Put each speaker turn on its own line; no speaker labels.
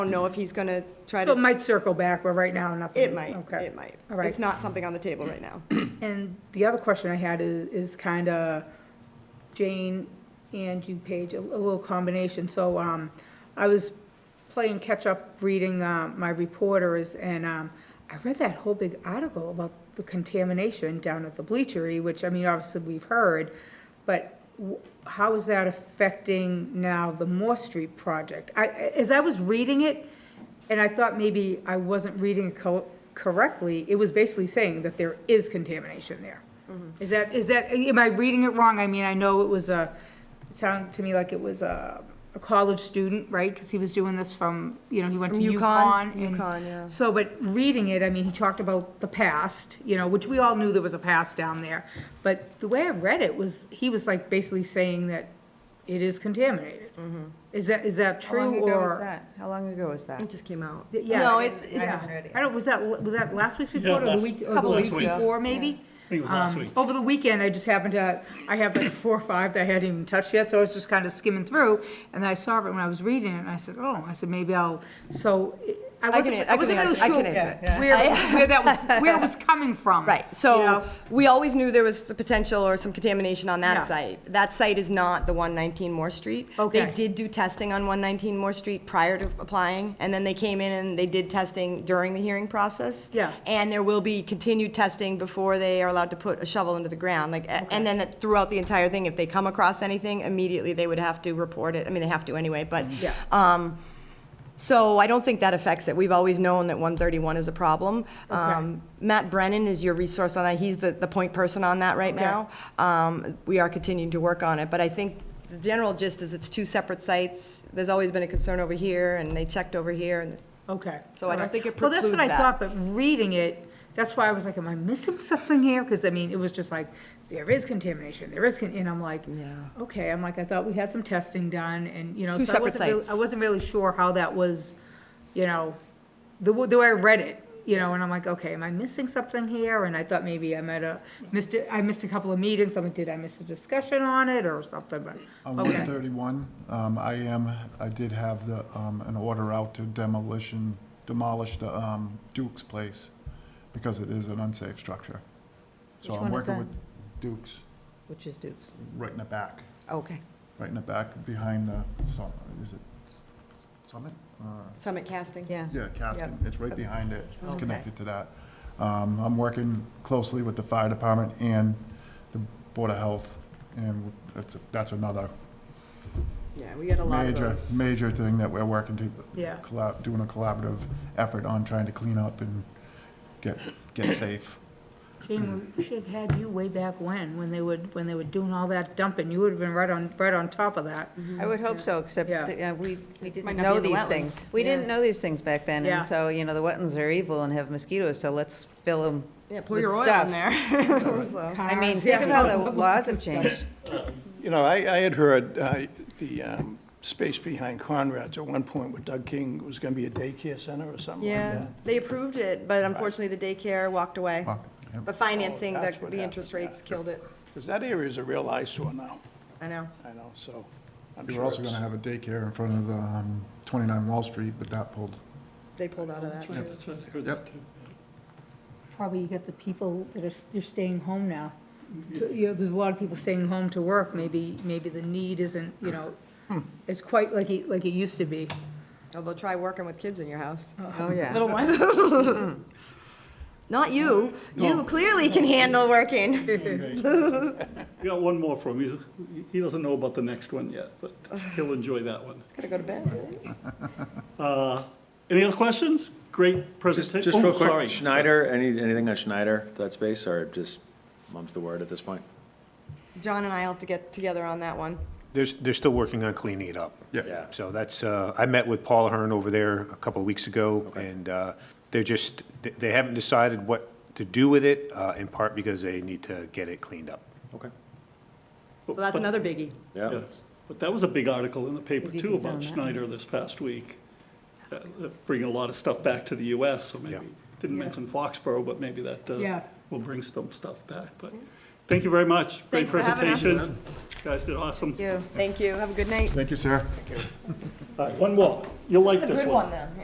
don't know if he's gonna try
So it
to,
might circle back, but right now, nothing.
it might,
Okay.
it might.
All right.
It's not something on the table right now.
And the other question I had is, is kind of Jane and you, Paige, a a little combination. So, um, I was playing catch-up reading, uh, my reporters, and, um, I read that whole big article about the contamination down at the bleachery, which, I mean, obviously we've heard, but w- how is that affecting now the Moore Street project? I, as I was reading it, and I thought maybe I wasn't reading it co- correctly, it was basically saying that there is contamination there.
Mm-hmm.
Is that, is that, am I reading it wrong? I mean, I know it was a, it sounded to me like it was a, a college student, right? Because he was doing this from, you know, he went to
From UConn,
UConn. and-
UConn, yeah.
So, but reading it, I mean, he talked about the past, you know, which we all knew there was a past down there. But the way I read it was, he was like basically saying that it is contaminated. Is that, is that true
Mm-hmm. How
or?
long ago was that? How long ago was that?
It just came out.
Yeah.
No, it's,
I
it's,
haven't heard it
I
yet.
don't, was that, was that last week's report or
last-
the week, or the
Couple
week
weeks ago.
before, maybe?
I think it was last
Um,
week.
Over the weekend, I just happened to, I have like four or five that I hadn't even touched yet, so I was just kind of skimming through, and I saw it when I was reading it, and I said, oh, I said, maybe I'll, so, I
I
wasn't,
can,
I
I can
wasn't really
answer,
sure.
I can answer it.
Where, where that was, where it was coming from.
Right,
you know?
so we always knew there was the potential or some contamination on
Yeah.
that site. That site is not the 119 Moore Street.
Okay.
They did do testing on 119 Moore Street prior to applying, and then they came in and they did testing during the hearing process.
Yeah.
And there will be continued testing before they are allowed to put a shovel into the ground, like, a- and then throughout the entire thing, if they come across anything, immediately they would have to report it. I mean, they have to anyway, but.
Yeah.
Um, so I don't think that affects it. We've always known that 131 is a problem. Um, Matt Brennan is your resource on that. He's the, the point person on that right now. Um, We are continuing to work on it, but I think the general gist is it's two separate sites. There's always been a concern over here, and they checked over here, and
Okay.
So I don't
All right.
think it
Well, that's
precludes
what I
that.
thought, but reading it, that's why I was like, am I missing something here? Because I mean, it was just like, there is contamination, there is, con- and I'm like, okay, I'm like, I thought we had some testing done and, you know.
Two
so I
separate
wasn't really-
sites.
I wasn't really sure how that was, you know, the, w- the way I read it, you know, and I'm like, okay, am I missing something here? And I thought maybe I might have missed it, I missed a couple of meetings, I'm like, did I miss a discussion on it or something, but,
On
okay.
131, um, I am, I did have the, um, an order out to demolition, demolish the um, Duke's place because it is an unsafe structure. So
Which
I'm
one is
working
that?
with Duke's,
Which is Duke's.
right in the back,
okay.
right in the back behind the, Sum- is it Summit? Uh,
Summit Casting.
Yeah.
Yeah, Caskin, it's right behind it, it's
Okay.
connected to that. Um, I'm working closely with the fire department and the Board of Health, and that's, that's another
Yeah, we get a lot of
major,
those.
major thing that we're working to.
Yeah.
collab- Doing a collaborative effort on trying to clean up and get, get safe.
Jane, we should have had you way back when, when they would, when they were doing all that dumping, you would have been right on, right on top of that.
I would hope so, except
Yeah.
uh, we, we
Might
didn't
not be
know
in the
these
wetlands.
things. We didn't know these things back then,
Yeah.
and so, you know, the wetlands are evil and have mosquitoes, so let's fill them
Yeah, pour
with
your oil
stuff.
in there. So-
I mean,
Cars,
think
yeah.
of how the laws have changed.
You know, I, I had heard uh, the um, space behind Conrad's at one point with Doug King was going to be a daycare center or something like
Yeah,
that.
they approved it, but unfortunately, the daycare walked away.
Fuck, yep.
The financing,
Oh,
the,
that's what
the interest
happened, yeah.
rates killed it.
Because that area is a real eyesore now,
I know.
I know, so. I'm
We
sure
were also
it's-
gonna have a daycare in front of, um, 29 Wall Street, but that pulled.
They pulled out of that.
Yeah, that's right, I heard that too.
Probably you got the people that are, s- they're staying home now. You know, there's a lot of people staying home to work, maybe, maybe the need isn't, you know, it's quite like it, like it used to be.
Although try working with kids in your house.
Oh, yeah.
Little ones. Not you. You clearly can handle working.
We got one more from him. He's, he doesn't know about the next one yet, but he'll enjoy that one.
Gotta go to bed.
Uh, Any other questions? Great
Just,
presentation. Oh,
just real quick, Schneider, any, anything on Schneider, that space, or just mum's the word at this point?
John and I have to get together on that one.
They're, they're still working on cleaning it up.
Yeah.
So that's, uh, I met with Paula Hearn over there a couple of weeks ago, and uh, they're just, they- they haven't decided what to do with it, uh, in part because they need to get it cleaned up.
Okay.
Well, that's another biggie.
Yeah.
But that was a big article in the paper
Maybe you
too
can zone
about
that in.
Schneider this past week. That- that Bringing a lot of stuff back to the US, so maybe, didn't mention Foxborough, but maybe that uh,
Yeah.
will bring some stuff back. But thank you very much. Great
Thanks for having us.
presentation. You Guys did awesome.
You.
Thank you. Have a good night.
Thank you, sir.
Uh,
All right, one more. You'll like
That's a
this
good one, then.